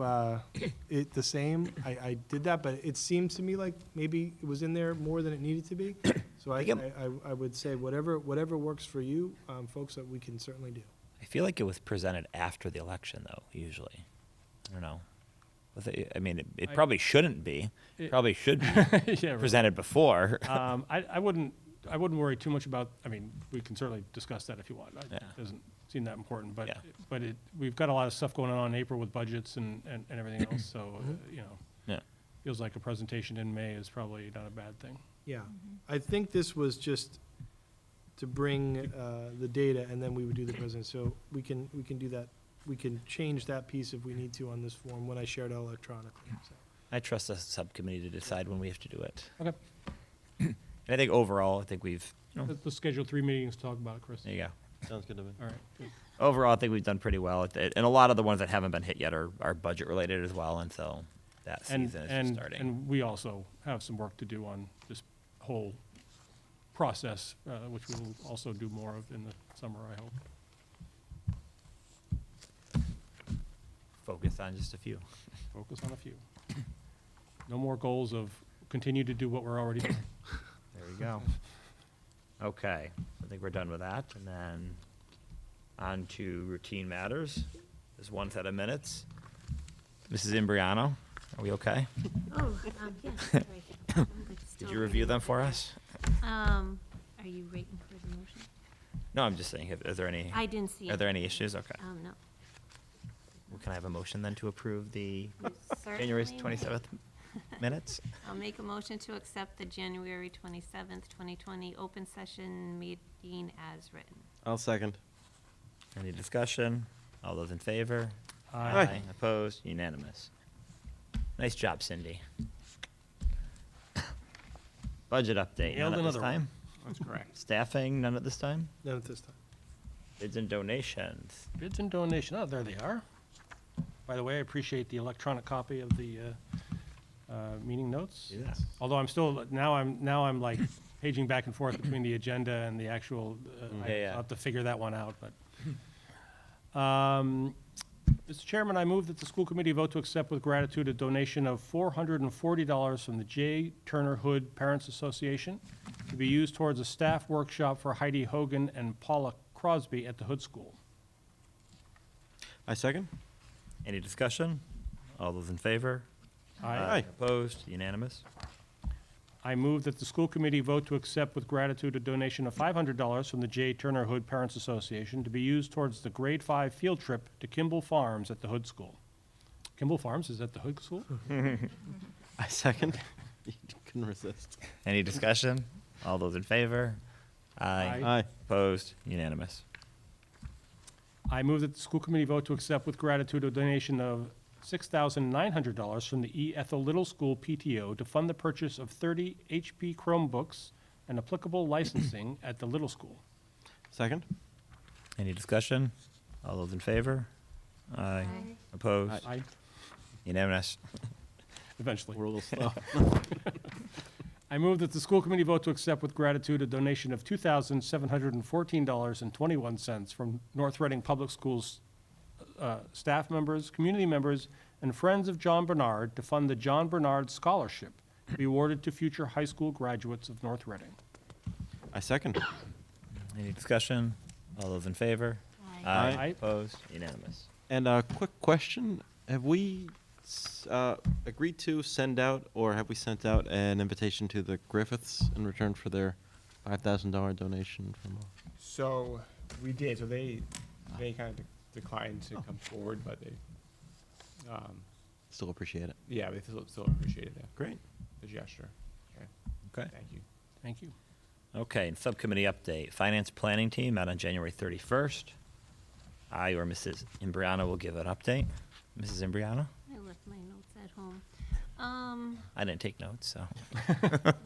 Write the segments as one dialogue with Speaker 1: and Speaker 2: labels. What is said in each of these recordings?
Speaker 1: uh, it the same. I, I did that, but it seems to me like maybe it was in there more than it needed to be. So I,
Speaker 2: Again-
Speaker 1: I, I- I would say whatever, whatever works for you, um, folks, that we can certainly do.
Speaker 2: I feel like it was presented after the election, though. Usually, I don't know. With it- I mean, it, it
Speaker 3: I-
Speaker 2: probably shouldn't be.
Speaker 3: It-
Speaker 2: probably should be
Speaker 3: Yeah, right.
Speaker 2: presented before.
Speaker 3: Um, I, I wouldn't, I wouldn't worry too much about, I mean, we can certainly discuss that if you want. I- It
Speaker 2: Yeah.
Speaker 3: doesn't seem that important, but,
Speaker 2: Yeah.
Speaker 3: but it, we've got a lot of stuff going on in April with budgets and, and and everything else, so, uh, you know,
Speaker 2: Mm-hmm. yeah.
Speaker 3: feels like a presentation in May is probably not a bad thing.
Speaker 1: Yeah, I think this was just to bring uh, the data, and then we would do the president. So we can, we can do that, we can change that piece if we need to on this form when I share it electronically. So,
Speaker 2: I trust the subcommittee to decide when we have to do it.
Speaker 3: Okay,
Speaker 2: And I think overall, I think we've. You know,
Speaker 3: let's, let's schedule three meetings to talk about it, Chris.
Speaker 2: Oh. there you go.
Speaker 4: Sounds good to me.
Speaker 3: All right, good.
Speaker 2: Overall, I think we've done pretty well. At it. And a lot of the ones that haven't been hit yet are, are budget related as well. And so that season
Speaker 3: and,
Speaker 2: is just
Speaker 3: and,
Speaker 2: starting.
Speaker 3: and we also have some work to do on this whole process, uh, which we will also do more of in the summer, I hope.
Speaker 2: Focus on just a few.
Speaker 3: Focus on a few. No more goals of continue to do what we're already doing.
Speaker 2: There you go. Okay, I think we're done with that, and then on to routine matters. There's one set of minutes. Mrs. Imbriano, are we okay?
Speaker 5: Oh, um, yes, sorry. I'm like
Speaker 2: Did
Speaker 5: still
Speaker 2: you review
Speaker 5: reading.
Speaker 2: them for us?
Speaker 5: Um, are you waiting for the motion?
Speaker 2: No, I'm just saying, if- is there any,
Speaker 5: I didn't see it.
Speaker 2: are there any issues? Okay.
Speaker 5: Um, no.
Speaker 2: Well, Can I have a motion then to approve the
Speaker 5: You
Speaker 2: January
Speaker 5: certainly may.
Speaker 2: 27th minutes?
Speaker 5: I'll make a motion to accept the January twenty-seventh, twenty twenty open session meeting as written.
Speaker 4: I'll second.
Speaker 2: Any discussion? All those in favor?
Speaker 3: Aye. Aye.
Speaker 2: Opposed? Unanimous. Nice job, Cindy. Budget update, none
Speaker 3: Nailed
Speaker 2: at this
Speaker 3: another one.
Speaker 2: time?
Speaker 3: That's correct.
Speaker 2: Staffing, none at this time?
Speaker 1: None at this time.
Speaker 2: Bids and donations.
Speaker 3: Bids and donation, oh, there they are. By the way, I appreciate the electronic copy of the uh, uh, meeting notes.
Speaker 2: Yes.
Speaker 3: Although I'm still, now I'm, now I'm like paging back and forth between the agenda and the actual, uh,
Speaker 2: Mm. Yeah,
Speaker 3: I'll
Speaker 2: yeah.
Speaker 3: have to figure that one out, but. Um, Mr. Chairman, I move that the school committee vote to accept with gratitude a donation of $440 from the J. Turner Hood Parents Association to be used towards a staff workshop for Heidi Hogan and Paula Crosby at the Hood School.
Speaker 4: I second.
Speaker 2: Any discussion? All those in favor?
Speaker 4: Aye.
Speaker 2: Opposed? Unanimous?
Speaker 3: I move that the school committee vote to accept with gratitude a donation of $500 from the J. Turner Hood Parents Association to be used towards the grade five field trip to Kimball Farms at the Hood School. Kimball Farms is at the Hood School?
Speaker 4: I second. You couldn't resist.
Speaker 2: Any discussion? All those in favor?
Speaker 3: Aye.
Speaker 4: Aye.
Speaker 2: Opposed? Unanimous?
Speaker 3: I move that the school committee vote to accept with gratitude a donation of $6,900 from the E. Ethel Little School PTO to fund the purchase of 30 HP Chromebooks and applicable licensing at the Little School.
Speaker 4: Second.
Speaker 2: Any discussion? All those in favor? Aye.
Speaker 5: Aye.
Speaker 2: Opposed?
Speaker 3: Aye.
Speaker 2: Unanimous?
Speaker 3: Eventually.
Speaker 4: We're a little slow.
Speaker 3: I move that the school committee vote to accept with gratitude a donation of $2,714.21 from North Reading Public Schools uh, staff members, community members, and friends of John Bernard to fund the John Bernard Scholarship to be awarded to future high school graduates of North Reading.
Speaker 4: I second.
Speaker 2: Any discussion? All those in favor?
Speaker 5: Aye.
Speaker 4: Aye.
Speaker 2: Opposed? Unanimous?
Speaker 4: And a quick question: Have we s- uh, agreed to send out, or have we sent out an invitation to the Griffiths in return for their five thousand dollar donation from? uh,
Speaker 6: So we did, so they, they kind of declined to come forward, but they, um,
Speaker 4: Still appreciate it.
Speaker 6: yeah, they still, still appreciated the,
Speaker 4: Great.
Speaker 6: the gesture. Okay,
Speaker 2: Okay.
Speaker 6: thank you.
Speaker 3: Thank you.
Speaker 2: Okay, and subcommittee update. Finance Planning Team out on January 31st. I or Mrs. Imbriano will give an update. Mrs. Imbriano?
Speaker 5: I left my notes at home. Um,
Speaker 2: I didn't take notes, so.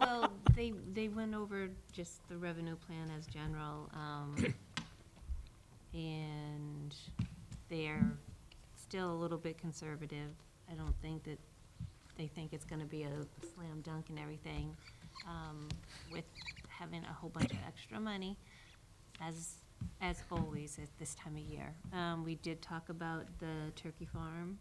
Speaker 5: Well, they, they went over just the revenue plan as general, um, and they're still a little bit conservative. I don't think that, they think it's gonna be a slam dunk and everything, um, with having a whole bunch of extra money, as, as always at this time of year. Um, we did talk about the turkey farm,